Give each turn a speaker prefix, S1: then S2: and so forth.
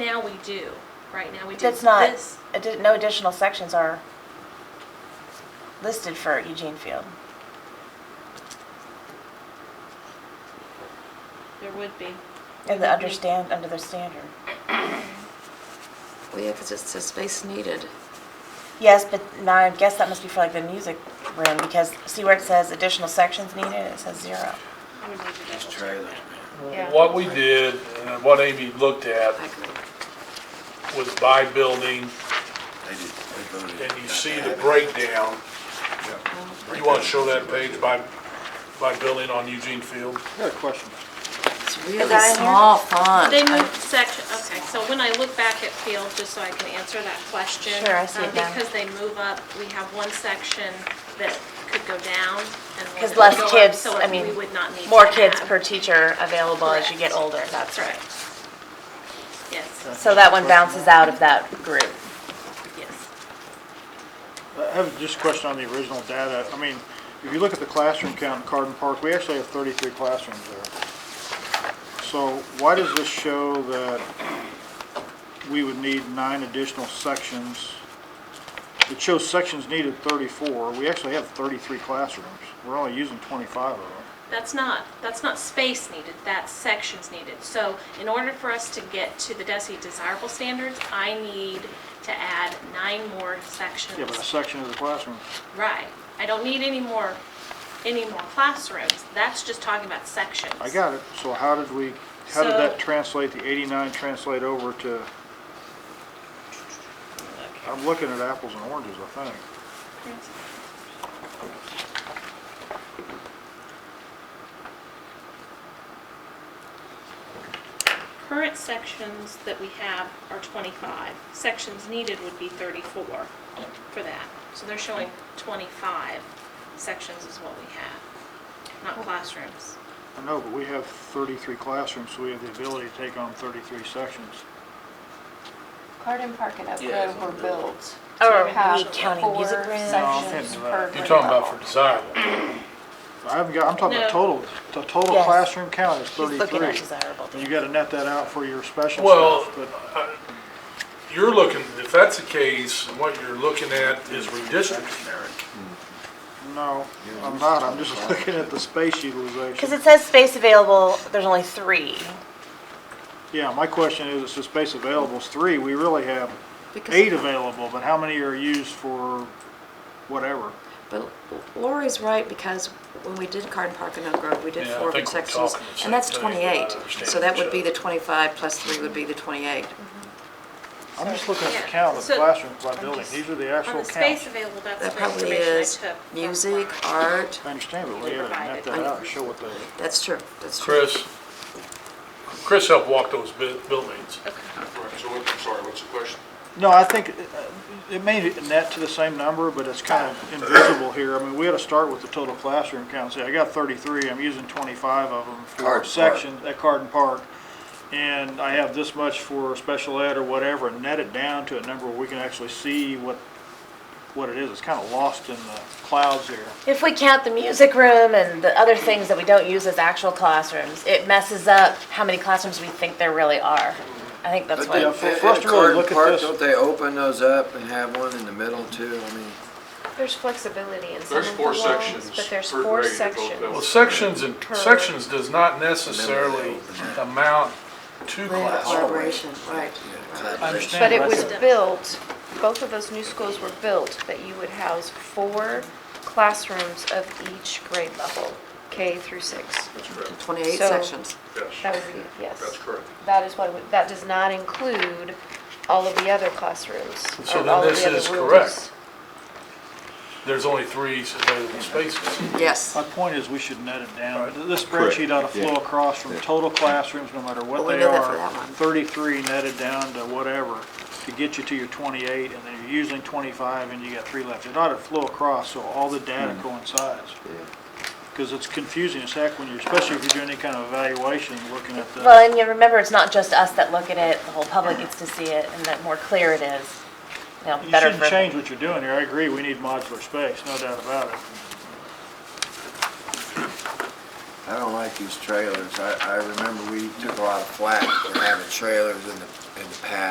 S1: now we do, right now we do.
S2: That's not,
S1: this.
S2: addi- no additional sections are listed for Eugene Field.
S1: There would be.
S2: In the understand, under the standard.
S3: Well, yeah, because it's the space needed.
S2: Yes, but now I guess that must be for like the music room, because see where it says additional sections needed, it says zero.
S1: I would need to double check
S4: trailers.
S1: that. Yeah.
S5: What we did, and what Amy looked at,
S3: I agree.
S5: was by building,
S4: They did, they voted.
S5: and you see the breakdown. You want to show that page by, by building on Eugene Field?
S6: I got a question.
S3: It's really
S2: that in here?
S3: small font.
S1: They
S3: I-
S1: moved section, okay, so when I look back at field, just so I can answer that question.
S2: Sure, I see it
S1: um,
S2: now.
S1: Because they move up, we have one section that could go down and one
S2: Because
S1: that
S2: less
S1: would go up,
S2: kids,
S1: so
S2: I mean,
S1: we would not need
S2: More
S1: to
S2: kids
S1: have-
S2: per teacher available as you get
S1: Correct.
S2: older, that's right.
S1: Yes,
S2: So that one bounces out of that group.
S1: yes.
S6: I have just a question on the original data. I mean, if you look at the classroom count in Carden Park, we actually have 33 classrooms there. So why does this show that we would need nine additional sections? It shows sections needed 34. We actually have 33 classrooms. We're only using 25 of them.
S1: That's not, that's not space needed, that's sections needed. So in order for us to get to the DESI desirable standards, I need to add nine more sections.
S6: Yeah, but a section is a classroom.
S1: Right. I don't need any more, any more classrooms. That's just talking about sections.
S6: I got it. So how did we, how did
S1: So-
S6: that translate, the 89 translate over to, I'm looking at apples and oranges, I think.
S1: Current sections that we have are 25. Sections needed would be 34 for that. So they're showing 25 sections is what we have, not classrooms.
S6: I know, but we have 33 classrooms, so we have the ability to take on 33 sections.
S7: Carden Park and Oak
S4: Yeah, it's
S7: Grove
S4: on the-
S7: were built
S2: Or
S7: to have
S2: we counting
S7: four
S2: music rooms? No,
S6: I'm
S7: sections
S6: thinking
S7: per
S6: about-
S5: You're
S7: grade
S5: talking about
S7: level.
S5: for desirable.
S6: I haven't got, I'm talking about
S1: No.
S6: total, the total
S2: Yes.
S6: classroom count is
S2: He's looking at
S6: 33.
S2: desirable.
S6: And you gotta net that out for your special
S5: Well,
S6: stuff, but
S5: You're looking, if that's the case, what you're looking at is redistricting,
S6: no, I'm not, I'm just looking at the space
S2: Because
S6: utilization.
S2: it says space available, there's only three.
S6: Yeah, my question is, it's the space available is three, we really have
S3: Because-
S6: eight available, but how many are used for whatever?
S3: But Lori's right, because when we did Carden Park and Oak Grove, we did
S5: Yeah, I
S3: four
S5: think
S3: different
S5: we're
S3: sections,
S5: talking the
S3: and that's
S5: same thing, but I
S3: 28.
S5: understand
S3: So that
S5: each
S3: would be
S5: other.
S3: the 25 plus three would be the 28.
S6: I'm just looking at
S1: Yeah,
S6: the count of
S1: so-
S6: classrooms by building, these are the
S1: On
S6: actual
S1: the space
S6: counts.
S1: available, that's
S3: That
S1: the
S3: probably
S1: information I took.
S3: is
S1: from
S3: music,
S1: Brian.
S3: art,
S6: I understand, but we gotta net that out and show what the
S3: that's true, that's true.
S5: Chris, Chris helped walk those bu- buildings.
S8: So what, I'm sorry, what's the question?
S6: No, I think uh, it may net to the same number, but it's kind of invisible here. I mean, we had to start with the total classroom count. Say, I got 33, I'm using 25 of them for
S4: Carden Park.
S6: section at Carden Park. And I have this much for special ed or whatever, and net it down to a number where we can actually see what, what it is. It's kind of lost in the clouds here.
S2: If we count the music room and the other things that we don't use as actual classrooms, it messes up how many classrooms we think there really are. I think that's
S4: But
S2: why.
S4: they,
S6: Yeah, for- for us
S4: at
S6: to really
S4: Carden
S6: look at
S4: Park,
S6: this-
S4: don't they open those up and have one in the middle too? I mean,
S7: There's flexibility in some of
S8: There's
S7: the
S8: four
S7: loans,
S8: sections
S7: but there's
S8: per
S7: four
S8: grade at both
S7: sections.
S5: Well,
S8: levels.
S5: sections and, sections does not necessarily amount to
S3: Right,
S5: class.
S3: Collaboration, right.
S4: collaboration.
S6: understand.
S7: But it was
S6: Right.
S7: built, both of those new schools were built that you would house four classrooms of each grade level, K through six.
S8: That's correct,
S3: 28
S7: So-
S3: sections.
S7: That
S8: yes,
S7: would be, yes.
S8: that's correct.
S7: That is why, we- that does not include all of the other classrooms.
S5: So
S7: or
S5: then
S7: all of
S5: this
S7: the other
S5: is
S7: rooms.
S5: correct. There's only three available spaces.
S3: Yes.
S6: My point is, we should net it down. Th- This spreadsheet ought to flow across from total classrooms, no matter
S3: Well,
S6: what
S3: we
S6: they
S3: know that for
S6: are.
S3: that one.
S6: Thirty-three netted down to whatever, to get you to your twenty-eight, and then you're using twenty-five, and you got three left. It ought to flow across, so all the data coincides. Because it's confusing as heck when you're, especially if you're doing any kind of evaluation, looking at the.
S2: Well, and you remember, it's not just us that look at it, the whole public gets to see it, and the more clear it is, you know,
S6: You
S2: better
S6: shouldn't
S2: for.
S6: change what you're doing here. I agree, we need modular space, no doubt about it.
S4: I don't like these trailers. I, I remember we took a lot of flack for having trailers in the, in the past.